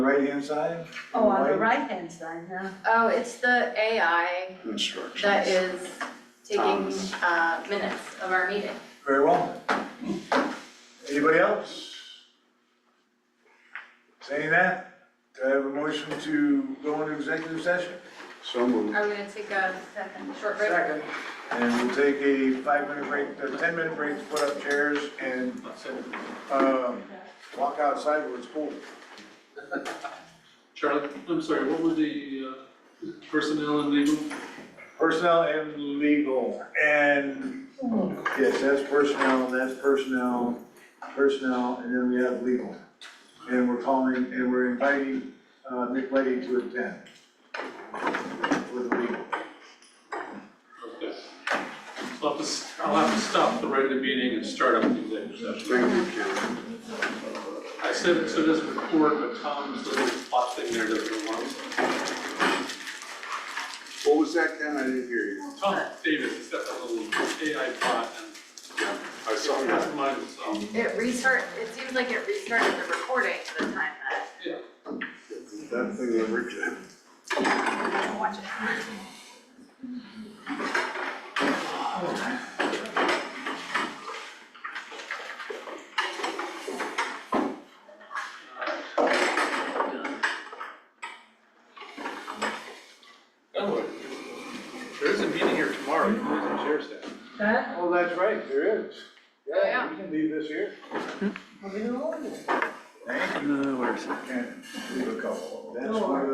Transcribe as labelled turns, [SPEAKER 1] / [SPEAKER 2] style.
[SPEAKER 1] right-hand side?
[SPEAKER 2] Oh, on the
[SPEAKER 1] Right.
[SPEAKER 2] right-hand side, huh?
[SPEAKER 3] Oh, it's the AI
[SPEAKER 4] instructions.
[SPEAKER 3] that is taking
[SPEAKER 4] Thomas.
[SPEAKER 3] uh minutes of our meeting.
[SPEAKER 1] Very well. Anybody else? Saying that, do I have a motion to go into executive session?
[SPEAKER 4] So moved.
[SPEAKER 3] Are we gonna take a second short break?
[SPEAKER 1] Second. And we'll take a five-minute break, a ten-minute break to put up chairs and, um, walk outside where it's cool.
[SPEAKER 5] Charlie, I'm sorry, what were the uh, personnel and legal?
[SPEAKER 1] Personnel and legal, and, yes, that's personnel, that's personnel, personnel, and then we have legal. And we're calling, and we're inviting, uh, Nick Lady to attend. With the legal.
[SPEAKER 5] Okay. So I'll have to, s- I'll have to stop the regular meeting and start up the executive session.
[SPEAKER 4] Thank you, Ken.
[SPEAKER 5] I said, so it doesn't record, but Tom's little plot thing there doesn't belong.
[SPEAKER 4] What was that, Ken? I didn't hear you.
[SPEAKER 5] Tom Davis, has got that little AI plot and
[SPEAKER 4] Yeah, I saw
[SPEAKER 5] it
[SPEAKER 4] that.
[SPEAKER 5] has mine, so,
[SPEAKER 3] It restart, it seems like it restarted the recording the time that
[SPEAKER 5] yeah.
[SPEAKER 4] That thing ever did.
[SPEAKER 3] I don't watch it.
[SPEAKER 5] Oh, there is a meeting here tomorrow, you might as well share that.
[SPEAKER 2] Huh?
[SPEAKER 1] Oh, that's right, there is.
[SPEAKER 3] Yeah,
[SPEAKER 1] we can leave this here.
[SPEAKER 2] Well, we don't know.
[SPEAKER 1] Thank you. where's it? Leave a couple. That's
[SPEAKER 2] Sure.
[SPEAKER 1] one of the